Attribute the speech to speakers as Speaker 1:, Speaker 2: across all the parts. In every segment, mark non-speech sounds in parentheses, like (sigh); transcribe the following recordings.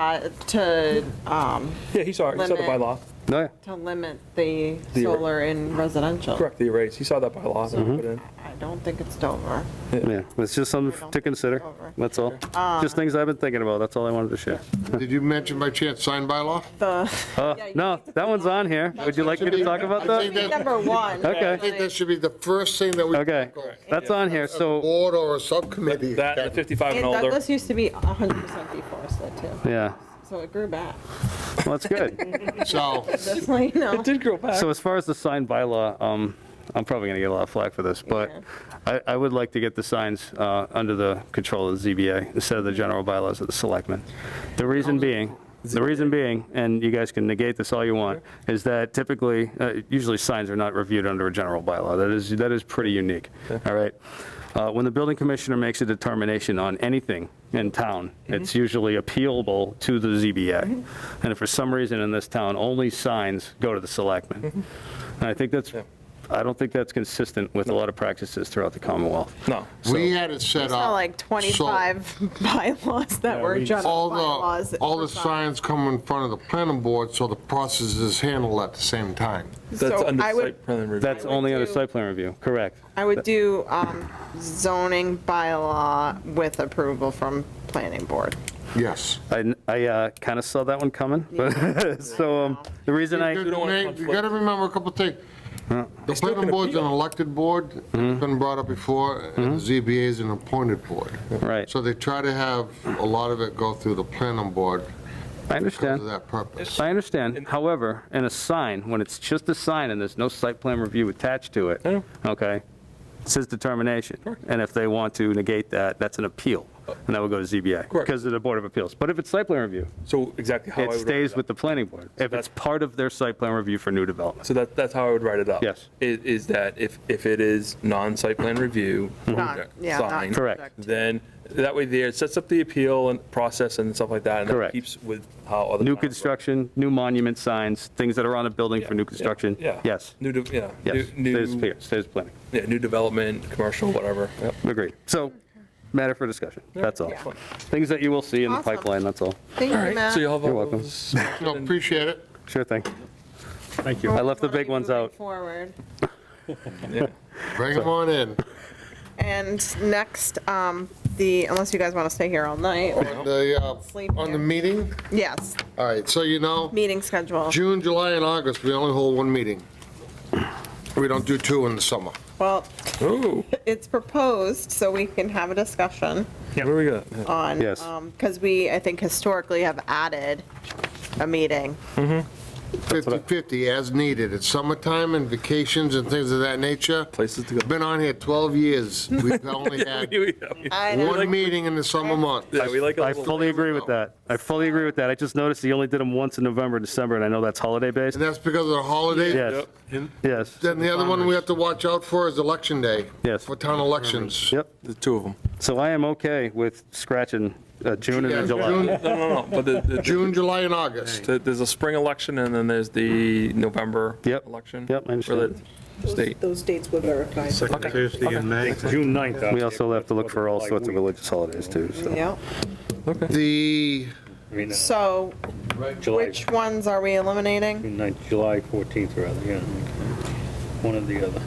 Speaker 1: uh, to, um,
Speaker 2: Yeah, he saw, he saw the
Speaker 1: Limit.
Speaker 2: bylaw,
Speaker 3: No, yeah.
Speaker 1: to limit the
Speaker 2: The-
Speaker 1: solar in residential.
Speaker 2: correct, the arrays, he saw that bylaw. that
Speaker 3: Mm-hmm.
Speaker 2: we put in.
Speaker 1: I don't think it's Dover.
Speaker 3: yeah, it's just something to consider, that's all. Just things I've been thinking about, that's all I wanted to share.
Speaker 4: Did you mention by chance sign by law?
Speaker 1: The,
Speaker 3: Uh,
Speaker 1: Yeah, you
Speaker 3: No, that one's on here, would you like me to talk
Speaker 1: (laughs)
Speaker 3: about
Speaker 4: I think
Speaker 3: that?
Speaker 4: that-
Speaker 1: number one.
Speaker 3: Okay.
Speaker 4: I think that should be the first thing that we.
Speaker 3: Okay,
Speaker 4: tackle.
Speaker 3: that's on here,
Speaker 4: A
Speaker 3: so,
Speaker 4: Board or a subcommittee.
Speaker 2: That, and the 55
Speaker 1: And
Speaker 2: and older,
Speaker 1: Douglas used to be 100% deforested too,
Speaker 3: yeah,
Speaker 1: so it grew back. (laughs)
Speaker 3: well, that's good.
Speaker 4: So,
Speaker 1: Just so you know.
Speaker 2: did grow back.
Speaker 3: So as far as the sign bylaw, um, I'm probably gonna get a lot of flack for this, but I, I would like to get the signs, uh, under the control of the ZBA instead of the general bylaws of the selectmen. The reason being, the reason being, and you guys can negate this all you want, is that typically, uh, usually signs are not reviewed under a general bylaw. That is, that is pretty unique, all right? Uh, When the building commissioner makes a determination on anything in town, it's usually appealable to the ZBA. And if for some reason in this town, only signs go to the selectmen. And I think that's, I don't think that's consistent with a lot of practices throughout the Commonwealth.
Speaker 2: No,
Speaker 4: we had it set up.
Speaker 1: Not like
Speaker 4: so
Speaker 1: 25 (laughs) bylaws that
Speaker 2: Yeah,
Speaker 1: were
Speaker 2: we-
Speaker 1: general
Speaker 4: All
Speaker 1: bylaws.
Speaker 4: the, all the
Speaker 1: for signs.
Speaker 4: signs come in front of the planning board, so the process is handled at the same time.
Speaker 2: that's
Speaker 1: So
Speaker 2: under
Speaker 1: I would-
Speaker 2: site plan review.
Speaker 3: That's
Speaker 1: would
Speaker 3: only under
Speaker 1: do-
Speaker 3: site plan review, correct?
Speaker 1: I would do um, zoning bylaw with approval from planning board.
Speaker 4: Yes.
Speaker 3: I, I kind of saw that one coming, but, (laughs) so um, the reason I.
Speaker 4: You
Speaker 2: don't want
Speaker 4: gotta- you gotta remember a couple things. The
Speaker 2: still
Speaker 4: planning
Speaker 2: can
Speaker 4: board's an
Speaker 2: appeal.
Speaker 4: elected board, it's been brought up before,
Speaker 3: Mm-hmm.
Speaker 4: and the ZBA is an appointed board.
Speaker 3: Right.
Speaker 4: So they try to have a lot of it go through the planning board
Speaker 3: I
Speaker 4: because
Speaker 3: understand.
Speaker 4: of that purpose.
Speaker 3: I understand. However, in a sign, when it's just a sign and there's no site plan review attached to it,
Speaker 2: I know.
Speaker 3: okay, it says determination. And if they want to negate that, that's an appeal, and that would go to ZBA.
Speaker 2: Correct.
Speaker 3: Because of the Board of Appeals. But if it's site plan review,
Speaker 2: So exactly how I
Speaker 3: it
Speaker 2: would. write
Speaker 3: stays
Speaker 2: up.
Speaker 3: with the planning board. If it's part of their site plan review for new development.
Speaker 2: So that, that's how I would write it up.
Speaker 3: Yes.
Speaker 2: Is, is that if, if it is non-site plan review.
Speaker 1: Not, yeah,
Speaker 2: sign,
Speaker 1: not.
Speaker 3: Mm-hmm. Correct.
Speaker 1: subject.
Speaker 2: Then, that way there, it sets up the appeal and process and stuff like that. and that
Speaker 3: Correct.
Speaker 2: Keeps with how other.
Speaker 3: New
Speaker 2: towns work.
Speaker 3: construction, new monument signs, things that are on a building
Speaker 2: Yeah,
Speaker 3: for new
Speaker 2: yeah,
Speaker 3: construction.
Speaker 2: yeah.
Speaker 3: Yes,
Speaker 2: New, de- yeah.
Speaker 3: yes,
Speaker 2: new-
Speaker 3: stays
Speaker 2: new-
Speaker 3: here, stays planning.
Speaker 2: Yeah, new development, commercial, whatever. Yep.
Speaker 3: Agreed. So, matter for discussion, that's all.
Speaker 1: Yeah.
Speaker 3: Things that you will see in the
Speaker 1: Awesome.
Speaker 3: pipeline, that's all.
Speaker 1: Thank
Speaker 2: All
Speaker 1: you,
Speaker 2: right, so
Speaker 1: Matt.
Speaker 2: you'll have
Speaker 3: You're
Speaker 2: all
Speaker 3: welcome.
Speaker 2: those.
Speaker 4: No, appreciate it.
Speaker 3: Sure thing.
Speaker 5: Thank you.
Speaker 3: I left the
Speaker 1: Wanna be
Speaker 3: big ones
Speaker 1: moving
Speaker 3: out.
Speaker 1: Forward.
Speaker 3: (laughs)
Speaker 2: Yeah.
Speaker 4: Bring them on in.
Speaker 1: And next, um, the, unless you guys want to stay here all night, or-
Speaker 4: On the, uh,
Speaker 1: Sleep
Speaker 4: on
Speaker 1: here.
Speaker 4: the meeting,
Speaker 1: yes,
Speaker 4: all right, so you know,
Speaker 1: meeting schedule.
Speaker 4: June, July, and August, we only hold one meeting. We don't do two in the summer.
Speaker 1: Well,
Speaker 2: Ooh,
Speaker 1: it's proposed, so we can have a discussion
Speaker 2: what do we got? Yeah.
Speaker 1: on,
Speaker 3: Yes.
Speaker 1: because we, I think historically have added a meeting.
Speaker 4: 50/50 as needed. It's summertime and vacations and things of that nature.
Speaker 2: Places to go.
Speaker 4: Been on here 12 years. We've
Speaker 3: (laughs)
Speaker 2: (laughs)
Speaker 4: only had
Speaker 1: I know,
Speaker 4: one meeting in the summer month.
Speaker 2: Yeah, we like a
Speaker 3: I
Speaker 2: little-
Speaker 3: fully agree with that. I fully agree with that. I just noticed he only did them once in November and December, and I know that's holiday based.
Speaker 4: And that's because of the holiday.
Speaker 3: Yes,
Speaker 2: Yep.
Speaker 3: yes,
Speaker 4: Then the other one we have to watch out for is election day.
Speaker 3: Yes.
Speaker 4: For town elections.
Speaker 3: yep.
Speaker 2: The two of them.
Speaker 3: So I am okay with scratching uh, June and
Speaker 4: Yeah,
Speaker 3: then
Speaker 4: June-
Speaker 3: July.
Speaker 2: No, no, no, but the-
Speaker 4: (laughs)
Speaker 2: the-
Speaker 4: June, July, and August.
Speaker 2: the- there's a spring election and then there's the November
Speaker 3: Yep.
Speaker 2: election.
Speaker 3: Yep, I understand.
Speaker 2: for the State.
Speaker 6: Those dates were verified.
Speaker 5: Second Tuesday in May. June 9th.
Speaker 3: We also have to look for all sorts of religious holidays too, so.
Speaker 1: yeah.
Speaker 4: The,
Speaker 1: So
Speaker 5: July,
Speaker 1: which ones are we eliminating?
Speaker 5: June 9th, July 14th, rather, yeah. One or the other.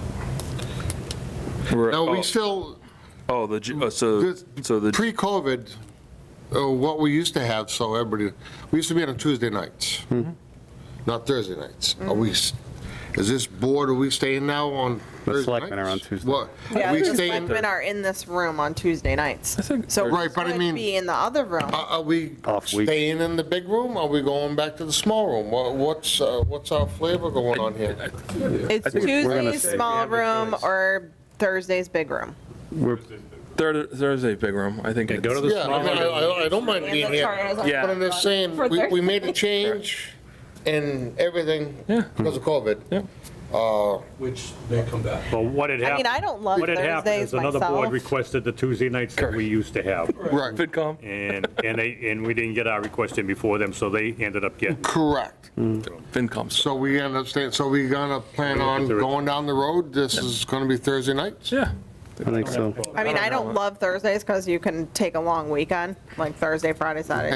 Speaker 2: We're-
Speaker 4: now,
Speaker 2: oh,
Speaker 4: we still,
Speaker 2: Oh, the, Ju- uh, so,
Speaker 4: This-
Speaker 2: so the,
Speaker 4: pre-COVID, uh, what we used to have, so everybody, we used to meet on Tuesday nights,
Speaker 3: Mm-hmm.
Speaker 4: not Thursday nights.
Speaker 1: Mm-hmm.
Speaker 4: Are we, s- is this board, are we staying now on
Speaker 3: The
Speaker 4: Thursday
Speaker 3: selectmen are on
Speaker 4: nights?
Speaker 3: Tuesday.
Speaker 4: What,
Speaker 1: Yeah,
Speaker 4: we
Speaker 1: the
Speaker 4: staying,
Speaker 1: selectmen are in this room on Tuesday nights.
Speaker 2: think
Speaker 1: So
Speaker 4: Right, but I
Speaker 1: would
Speaker 4: mean- uh,
Speaker 1: Be in the other room.
Speaker 4: are are we
Speaker 3: Off week.
Speaker 4: staying in the big room? Are we going back to the small room? What- What's, uh, what's our flavor going on here?
Speaker 1: It's
Speaker 2: think it's- we're gonna
Speaker 1: Tuesday's small room or Thursday's big room.
Speaker 2: there, there's a big room, I think.
Speaker 5: Yeah, go to
Speaker 2: it's-
Speaker 5: the
Speaker 4: Yeah, I mean, I- I I don't mind being here,
Speaker 1: Yeah.
Speaker 2: Yeah.
Speaker 4: but I'm just saying,
Speaker 1: For
Speaker 4: we- we
Speaker 1: Thursday.
Speaker 4: made a change in everything
Speaker 2: Yeah.
Speaker 4: because of COVID.
Speaker 2: Yeah.
Speaker 4: Uh,
Speaker 7: Which they come back.
Speaker 5: Well, what had
Speaker 1: I
Speaker 5: happened.
Speaker 1: mean, I don't love
Speaker 5: What had happened
Speaker 1: Thursdays
Speaker 5: is another board
Speaker 1: myself.
Speaker 5: requested the Tuesday nights that we used to have.
Speaker 4: Right,
Speaker 2: FinCom.
Speaker 5: And, and they, and we didn't get our request in before them, so they ended up getting.
Speaker 4: correct.
Speaker 2: FinCom.
Speaker 4: So we end up staying, so we gonna plan on going down the road? This is gonna be Thursday nights?
Speaker 2: Yeah.
Speaker 3: I think so.
Speaker 1: I mean, I
Speaker 2: I don't
Speaker 1: don't
Speaker 2: know.
Speaker 1: love Thursdays because you can take a long weekend, like Thursday, Friday, Saturday,